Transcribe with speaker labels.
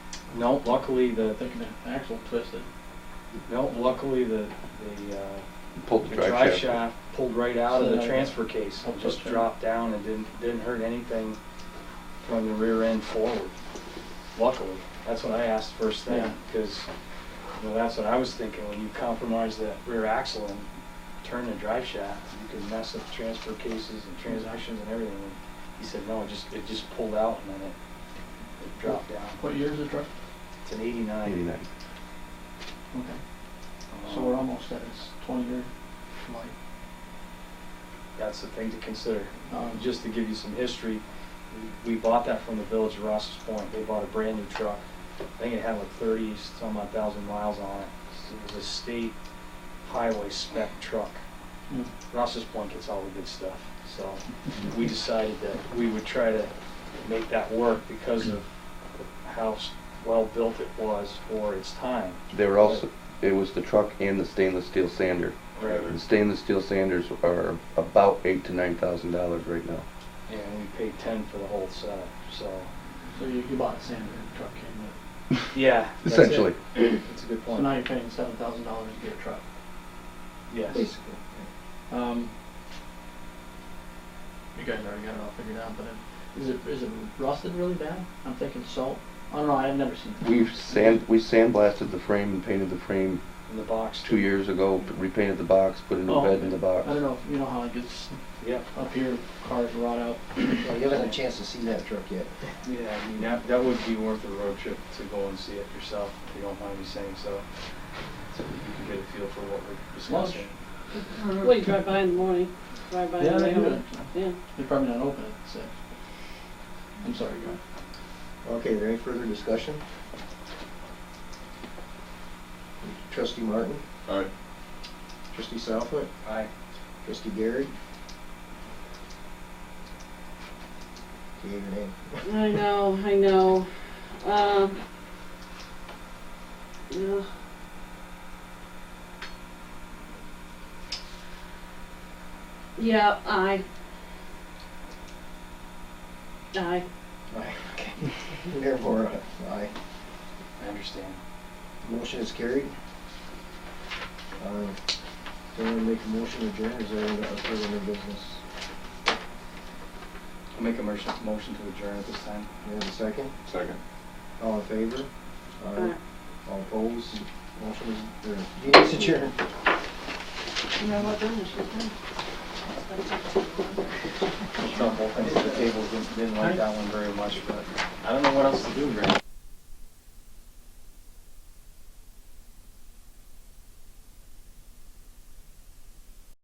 Speaker 1: No, luckily the,
Speaker 2: I think the axle twisted.
Speaker 1: no, luckily the, the, uh,
Speaker 3: Pulled
Speaker 1: the drive shaft pulled right out of the
Speaker 2: So-
Speaker 1: transfer case.
Speaker 2: Oh,
Speaker 1: Just
Speaker 2: okay.
Speaker 1: dropped down and didn't, didn't hurt anything from the rear end forward. Luckily, that's what I asked first thing,
Speaker 2: Yeah.
Speaker 1: because, you know, that's what I was thinking. When you compromise that rear axle and turn the drive shaft, you can mess up transfer cases and transmissions and everything. And He said, no, it just, it just pulled out and then it, it dropped down.
Speaker 2: What year is the truck?
Speaker 1: It's an eighty-nine.
Speaker 3: Eighty-nine.
Speaker 2: Okay,
Speaker 1: Um,
Speaker 2: so we're almost at its twenty-year life.
Speaker 1: That's the thing to consider.
Speaker 2: Um,
Speaker 1: Just to give you some history, we we bought that from the village of Ross's Point. They bought a brand new truck. I think it had like thirty, some odd thousand miles on it. It was a state highway spec truck.
Speaker 2: Hmm.
Speaker 1: Ross's Point gets all the good stuff. So we decided that we would try to make that work because of how s- well built it was for its time.
Speaker 3: They were also, it was the truck and the stainless steel sander.
Speaker 1: Right.
Speaker 3: The stainless steel sanders are about eight to nine thousand dollars right now.
Speaker 1: And we paid ten for the whole setup, so,
Speaker 2: So you, you bought a sander and the truck came with it.
Speaker 1: yeah. that's it.
Speaker 3: Essentially,
Speaker 1: That's a good
Speaker 2: So
Speaker 1: point.
Speaker 2: now you're paying seven thousand dollars to get a truck.
Speaker 1: Yes.
Speaker 2: Basically. Um, you guys already got it all figured out, but it- is it, is it rusted really bad? I'm thinking salt. I don't know, I've never seen that.
Speaker 3: we've sand, we sandblasted the frame and painted the frame
Speaker 1: In the box.
Speaker 3: two years ago, repainted the box, put a new
Speaker 2: Oh,
Speaker 3: bed in the
Speaker 2: I
Speaker 3: box.
Speaker 2: don't know, if you know how it gets
Speaker 1: Yep.
Speaker 2: up here, cars rot out.
Speaker 4: Well, you haven't had a chance to see that truck yet.
Speaker 1: Yeah, I mean, that, that would be worth a road trip to go and see it yourself, if you don't mind me saying so. So you can get a feel for what we're discussing.
Speaker 5: Well, you drive by in the morning, drive by in the
Speaker 2: they do
Speaker 5: afternoon.
Speaker 2: it.
Speaker 5: Yeah,
Speaker 2: They're probably not open at six. I'm sorry, go ahead.
Speaker 4: Okay, there any further discussion? Trustee Martin?
Speaker 6: Aye.
Speaker 4: Trustee Southwood?
Speaker 1: Aye.
Speaker 4: Trustee Gary? Give your name.
Speaker 5: I know, I know. Um, yeah. Yeah, I.
Speaker 4: Aye.
Speaker 5: I.
Speaker 4: Therefore, uh, aye.
Speaker 1: I understand.
Speaker 4: Motion is carried. Uh, Someone make a motion to adjourn, is there any further new business?
Speaker 1: I'll make a motion, motion to adjourn at this time.
Speaker 4: You have a second?
Speaker 6: Second.
Speaker 4: All in favor?
Speaker 5: Uh,
Speaker 4: All opposed? Motion is, or, meeting is adjourned.
Speaker 5: you know what, then, it's just done.
Speaker 1: It's not both ends of the table didn't, didn't like that one very much, but I don't know what else to do, Greg.